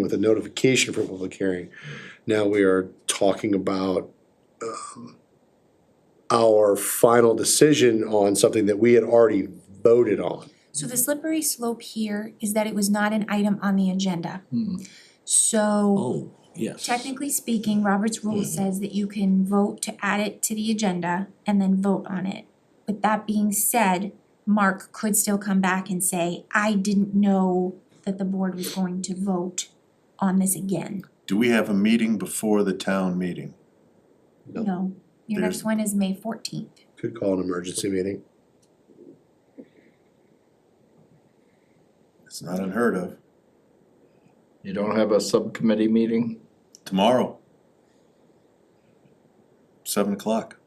with a notification for public hearing. Now we are talking about um, our final decision on something that we had already voted on. So the slippery slope here is that it was not an item on the agenda. Hmm. So Oh, yes. technically speaking, Robert's rule says that you can vote to add it to the agenda and then vote on it. With that being said, Mark could still come back and say, I didn't know that the board was going to vote on this again. Do we have a meeting before the town meeting? No. No, your next There's- one is May fourteenth. Could call an emergency meeting. It's not unheard of. You don't have a subcommittee meeting? Tomorrow. Seven o'clock.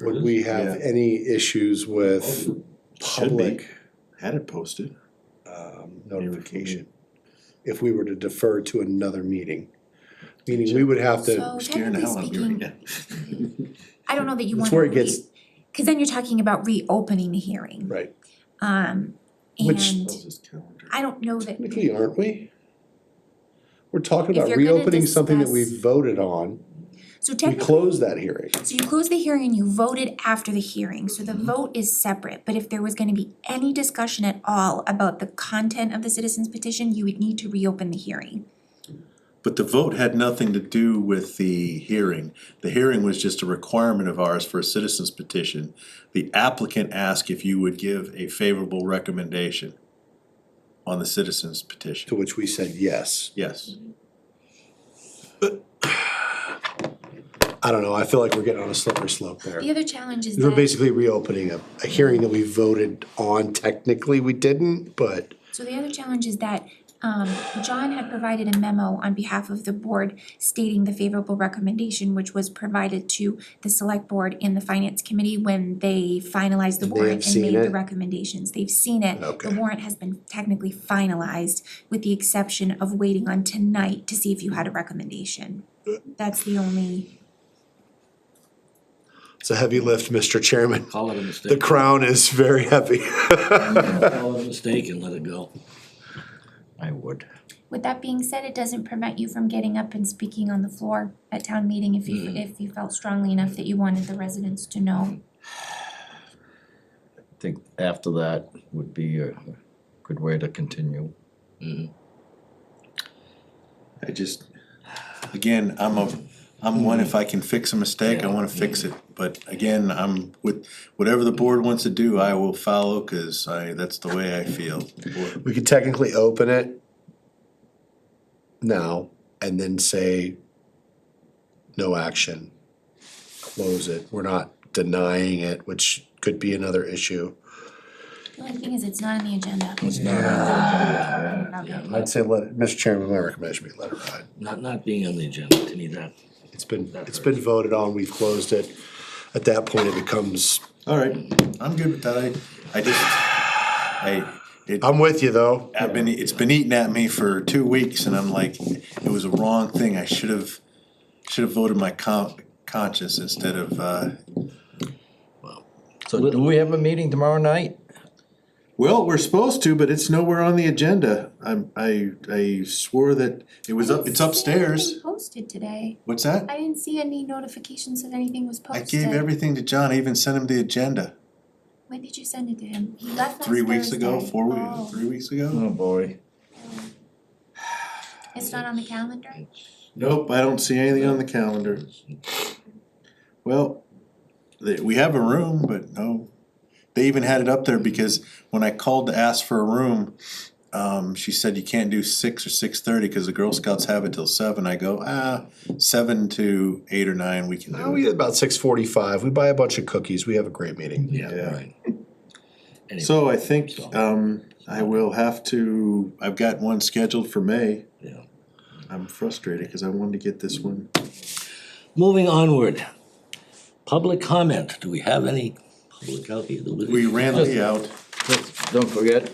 Would we have Yeah. any issues with public Had it posted. um, me. notification? If we were to defer to another meeting, meaning we would have to, So Scaring technically the hell out of me speaking, right now. I don't know that you want that's to where it gets, Cause then you're talking about reopening the hearing. right, Um, Which- and Close this calendar. I don't know that, technically, aren't we? We're talking If about you're gonna reopening something that we discuss- voted on, so we technically, close that hearing. so you closed the hearing and you voted after the hearing, so Mm-hmm. the vote is separate. But if there was gonna be any discussion at all about the content of the citizens petition, you would need to reopen the hearing. But the vote had nothing to do with the hearing. The hearing was just a requirement of ours for a citizen's petition. The applicant asked if you would give a favorable recommendation on the citizen's To petition. which we said yes. Yes. I don't know, I feel like we're getting on a slippery slope there. The other challenge is We're that, basically reopening a, a hearing that we voted on, technically we didn't, but so the other challenge is that, um, John had provided a memo on behalf of the board stating the favorable recommendation, which was provided to the select board and the finance committee when they finalized the And they warrant have seen and made the it? recommendations. They've seen it. Okay. The warrant has been technically finalized with the exception of waiting on tonight to see if you had a recommendation. That's the only, it's a heavy lift, Mr. Chairman. Call it a The mistake. crown is very heavy. Call it a mistake and let it go. I would. with that being said, it doesn't prevent you from getting up and speaking on the floor at town meeting if Mm-hmm. you, if you felt strongly enough that you wanted the residents to know. I think after that would be a good way to continue. I just, again, I'm a, I'm one, if I can fix a mistake, I wanna fix it. But again, I'm with, whatever the board wants to do, I will follow, cause I, that's the way I feel. We could technically open it now and then say no action, close it. We're not denying it, which could be another issue. The only thing is, it's not on the agenda. Yeah, I'd not, say let, it- Mr. Chairman, my recommendation would be let it ride. not, not being on the agenda, to me, that, It's been, it's been voted on, we've closed it. At that point, it becomes, Alright, I'm good with that, I, I just, I, it, I'm with you though. I've been, it's been eating at me for two weeks and I'm like, it was a wrong thing, I should have, should have voted my con- conscience instead of, uh, So do we have a meeting tomorrow night? Well, we're supposed to, but it's nowhere on the agenda. I'm, I, I swore that it was up, it's upstairs. Posted today. What's that? I didn't see any notifications that anything was I posted. gave everything to John, I even sent him the agenda. When did you send it to him? He left last Three weeks ago, Thursday. four Oh. weeks, three weeks ago? Oh, boy. It's not on the calendar? Nope, I don't see anything on the calendar. Well, they, we have a room, but no. They even had it up there because when I called to ask for a room, um, she said you can't do six or six thirty because the Girl Scouts have it till seven. I go, ah, seven to eight or nine, we can do it. Now we get about six forty-five, we buy a bunch of cookies, we have a great meeting. yeah, Yeah. right. Anyway, So I think, um, I will have to, I've got one scheduled for May. yeah. I'm frustrated because I wanted to get this one. Moving onward, public comment, do we have any public out here? that We ran the uh, out. Don't forget.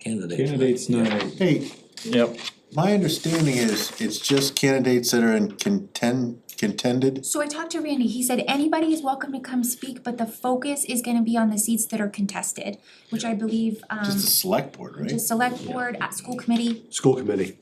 Candidates. Candidates night, Hey, Yep. My understanding is, it's just candidates that are in contend, contended, So I talked to Randy, he said anybody is welcome to come speak, but the focus is gonna be on the seats that are contested, which I believe, um, just the select board, right? just select board, at school committee, School committee.